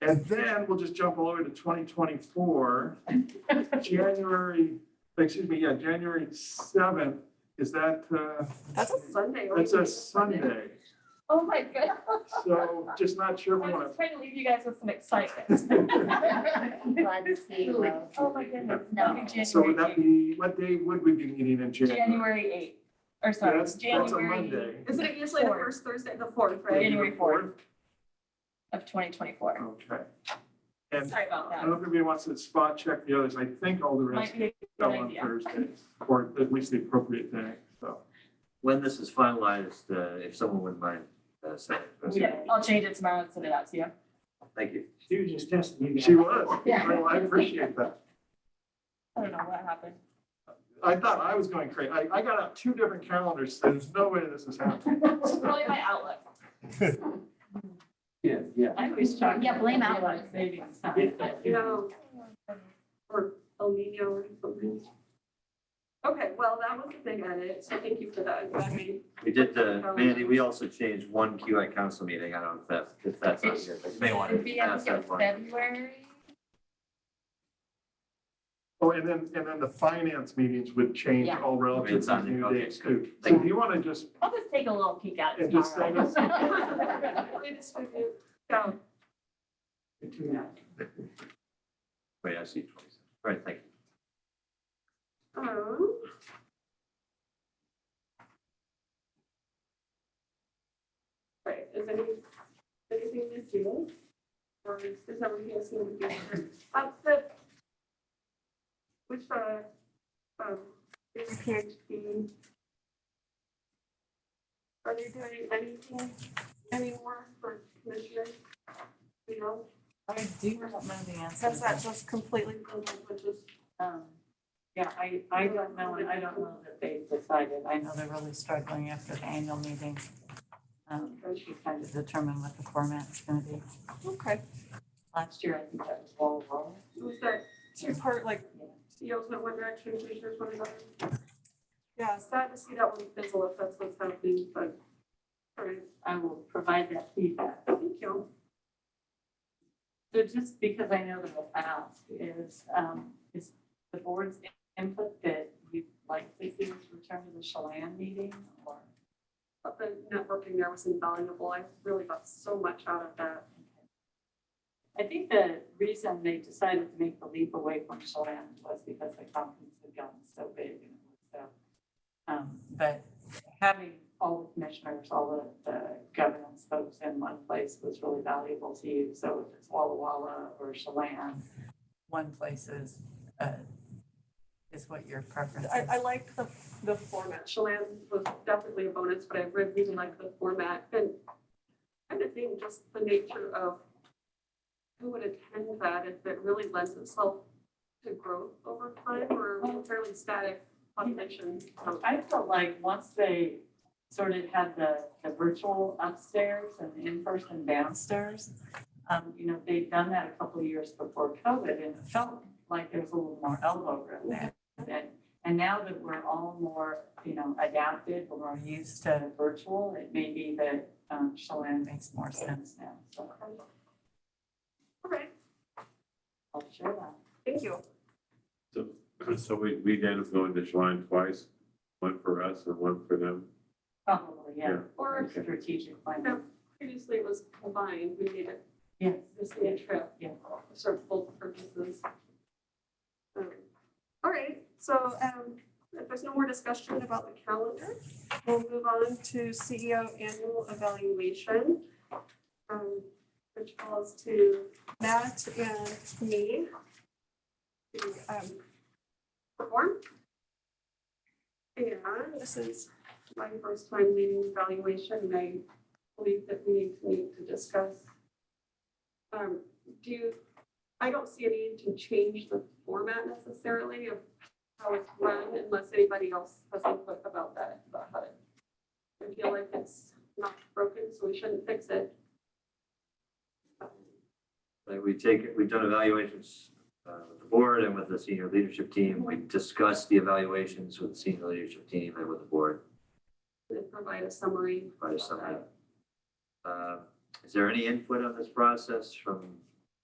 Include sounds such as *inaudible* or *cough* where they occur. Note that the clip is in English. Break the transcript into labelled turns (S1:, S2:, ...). S1: And then we'll just jump all over to twenty
S2: *laughs*
S1: twenty-four, January, excuse me, yeah, January seventh, is that, uh,
S3: That's a Sunday. or
S1: that's
S3: you
S1: a
S3: can do Sunday.
S1: Sunday.
S2: Oh my goodness.
S1: So just not
S2: I
S1: sure if we
S2: was
S1: want
S2: just trying to leave you guys with some excitement.
S1: *laughs* to.
S4: Glad to see you. Will.
S2: Oh my goodness.
S4: No.
S2: That'd be
S1: So would that
S2: January
S1: be, what day would we be meeting in
S2: eighth.
S1: January?
S2: January eighth, or
S1: Yeah,
S2: sorry,
S1: That's,
S2: January.
S1: that's a Monday.
S3: Isn't it usually the
S2: Fourth.
S3: first Thursday, the fourth,
S2: Right.
S3: right?
S2: January fourth. Of twenty twenty-four.
S1: Okay. And
S2: Sorry about
S1: I
S2: that.
S1: don't know if anybody wants to spot check the others. I think all the rest
S2: Might be a good
S1: fell on
S2: idea.
S1: Thursdays, or at least the appropriate day, so.
S5: When this is finalized, uh, if someone wouldn't mind, uh, saying.
S2: Yeah, I'll change it tomorrow and send it out to you.
S5: Thank you.
S6: She was just testing you.
S1: She
S2: *laughs*
S1: was.
S4: Yeah.
S1: Well, I appreciate that.
S2: I don't know what happened.
S1: I thought I was going crazy. I, I got out two different calendars. so There's no way this is happening.
S2: *laughs*
S1: *laughs*
S2: It's probably my outlook.
S6: Yeah, yeah.
S2: I always try.
S4: Yeah, blame outlook.
S2: Maybe.
S3: You know, or El Nino or something. Okay, well, that was the big edit, so thank you for that. I'm glad we-
S5: We did, uh, Mandy, we also changed one QI council meeting. I don't know if that's, if that's on here, but you may want
S2: It'd
S5: to
S2: be, I
S5: ask
S2: think it was
S5: that one.
S2: February.
S1: Oh, and then, and then the finance meetings would change
S4: Yeah.
S1: all relative
S5: It's
S1: to
S5: on the-
S1: new
S5: okay,
S1: dates too. So
S5: Thank
S1: if you want to just,
S2: I'll just take a little peek at it
S1: and just
S2: tomorrow.
S1: send us.
S2: *laughs*
S3: *laughs* we distribute. So,
S5: Wait, I see twenty-seven. All right, thank you.
S3: um, Right, is any, anything Um, this year? Or is this everything that's going to be? Uh, the, which, uh, um, is PhD? Are you doing anything, any work for commissioners? You know,
S7: I do not know the answer.
S3: since that just completely, blew my budget.
S7: Um, Yeah, I, I don't know, and I don't know that they decided. I know they're really struggling after the annual meeting. Um, to kind of determine what the format's gonna be.
S3: okay,
S7: Last year, I think that was wall to wall.
S3: was that two part, like,
S7: Yeah.
S3: CEOs went one direction, commissioners went another? Yeah, sad to see that one fizzle if that's what's happening, but, all right,
S7: I will provide that feedback.
S3: thank you.
S7: So just because I know that I'll ask is, um, is the board's input that you'd like to see us return to the Chelan meeting or?
S3: But the networking there was invaluable, I really got so much out of that.
S7: I think the reason they decided to make the leap away from Chelan was because the conference had gotten so big and it was so. um, But having all the commissioners, all the, the governance folks in one place was really valuable to you. So if it's Walla Walla or Chelan, one place is, uh, is what your preference is.
S3: I, I liked the, the format. Chelan was definitely a bonus, but I re- really liked the format and kind of think just the nature of who would attend that if it really lends itself to growth over time or a fairly static population. So
S7: I felt like once they sort of had the, the virtual upstairs and the in-person downstairs, um, you know, they'd done that a couple of years before COVID and it felt like there was a little more elbow room there. And, and now that we're all more, you know, adapted, we're more used to virtual, it may be that, um, Chelan makes more sense now, so
S3: All right,
S7: I'll share that.
S3: thank you.
S8: *clears throat* So we, we ended up going to Schlein twice, one for us and one for them.
S7: Probably, yeah,
S3: Or if
S7: strategic plan,
S3: previously it was combined, we made it
S7: yeah,
S3: this day a trip,
S7: yeah.
S3: sort of both purposes. Um, All right, so um, if there's no more discussion about the calendar, we'll move on to CEO annual evaluation. um, Which falls to Matt and me. to, um, Perform. And this is my first time leading evaluation, and I believe that we need to meet to discuss. Um, do you, I don't see a need to change the format necessarily of how it's run unless anybody else has input about that, about how it. I feel like it's not broken, so we shouldn't fix it. Um,
S5: Like Uh, we take, we've done evaluations uh, with the board and with the senior leadership team. We discussed the evaluations with the senior leadership team and with the board.
S3: And provide a summary.
S5: by somebody. Uh, Is there any input on this process from